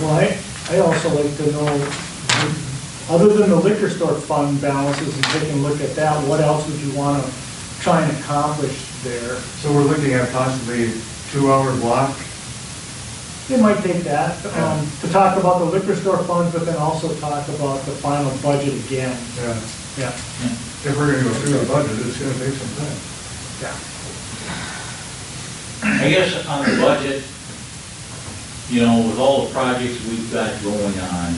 Well, I, I also like to know, other than the liquor store fund balances and taking a look at that, what else would you want to try and accomplish there? So we're looking at possibly two-hour block. It might take that, um, to talk about the liquor store fund, but then also talk about the final budget again. Yeah. Yeah. uh, If we're gonna go through the budget, it's gonna take some time. Yeah. I guess on the budget, you know, with all the projects we've got going on,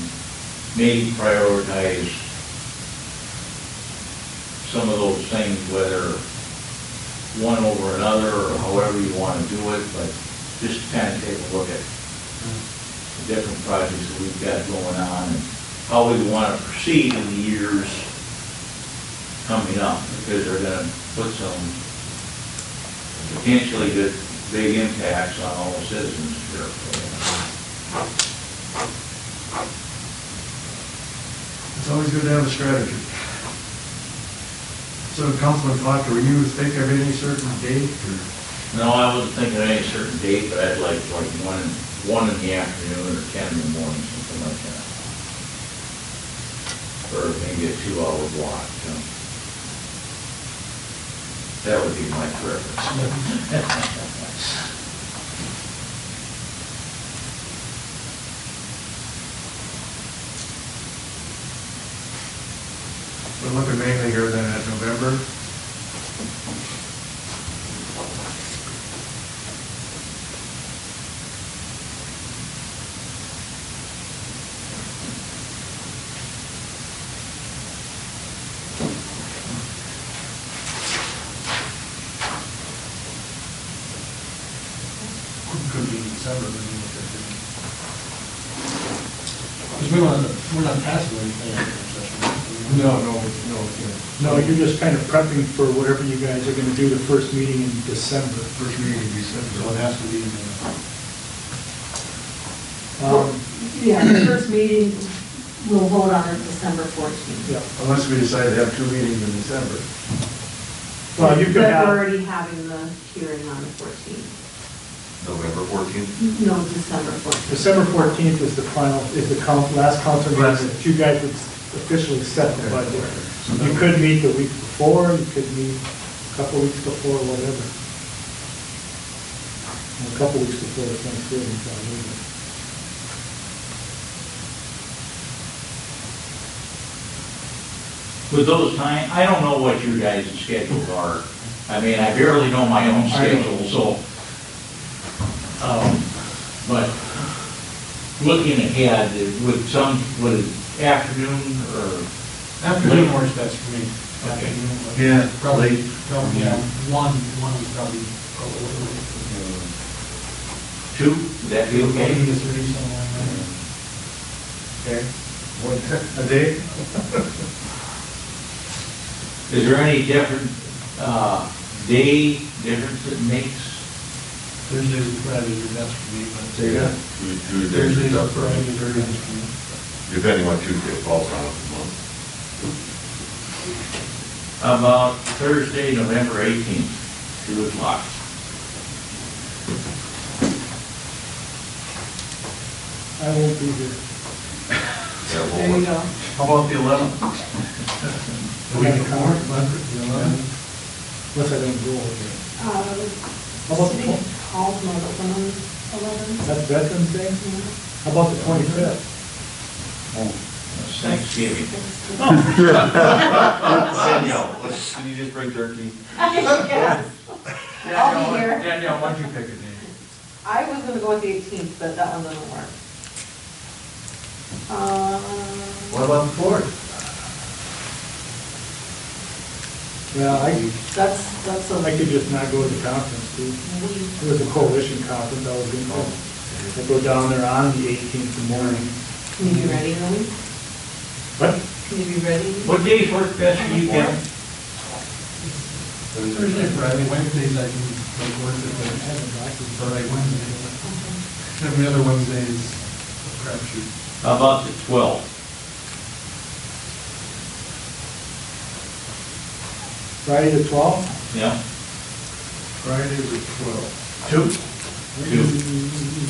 maybe prioritize some of those things, whether one over another, or however you want to do it, but just kind of take a look at the different projects that we've got going on, and how we want to proceed in the years coming up, because they're going to put some potentially good, big impacts on all the citizens here. It's always good to have a strategy. So Councilman Foster, were you thinking of any certain date or? No, I wasn't thinking of any certain date, but I'd like like one, one in the afternoon or ten in the morning, something like that. Or maybe a two-hour block, you know. That would be my preference. We're looking mainly here then at November. Could be December, but we look at it. Because we don't, we're not passing anything in executive session. No, no, no, yeah. No, you're just kind of prepping for whatever you guys are going to do the first meeting in December. First meeting in December. So it has to be in the, Um, Yeah, the first meeting, we'll vote on it December 14th. yeah. Unless we decide to have two meetings in December. Well, you could But have- we're already having the hearing on the 14th. November 14th? No, December 14th. December fourteenth is the final, is the coun last council meeting that you guys would officially set the budget. You could meet the week before, you could meet a couple weeks before, whatever. A couple weeks before the Thanksgiving, so I mean, With those time, I don't know what your guys' schedules are. I mean, I barely know my own schedule, so. um, But looking ahead, would some, would afternoon or, afternoon works best for me. Okay. Afternoon, but Yeah, Probably, late. probably, yeah, one, one would probably, probably, two, would that be maybe okay? a three, something like Okay. What, a day? Is there any different, uh, day difference it makes? that. Thursdays and Fridays are best for me, but. Say again? Two- two days Thursdays is and up, right? Fridays are best for me. Depending on Tuesday falls on of the month. About Thursday, November eighteenth, two o'clock. I won't be here. That whole There you month. go. How about the eleventh? The week before, Monday, the eleventh, Unless I don't go over How Uh, about the City twelfth? Hall's not open on 11th. That's Veterans Day? How about the twenty-fifth? That's Thanksgiving. Oh. Danielle, let's- can you just bring turkey? Yes, I'll be here. Danielle, why don't you pick a day? I was gonna go with the 18th, but that one doesn't work. Uh, What about the fourth? Yeah, I, That's, that's a I could just not go to the conference, dude. week. It was a coalition conference I was going to. I go down there on the eighteenth in the morning. Can you be ready, Lily? What? Can you be ready? What days work best for you, Kevin? Thursday, Friday, Wednesdays I can make work, but Friday, Wednesday, every other Wednesday is a crapshoot. How about the twelfth? Friday the twelfth? Yeah. Friday the twelfth. Two? Two. Mm,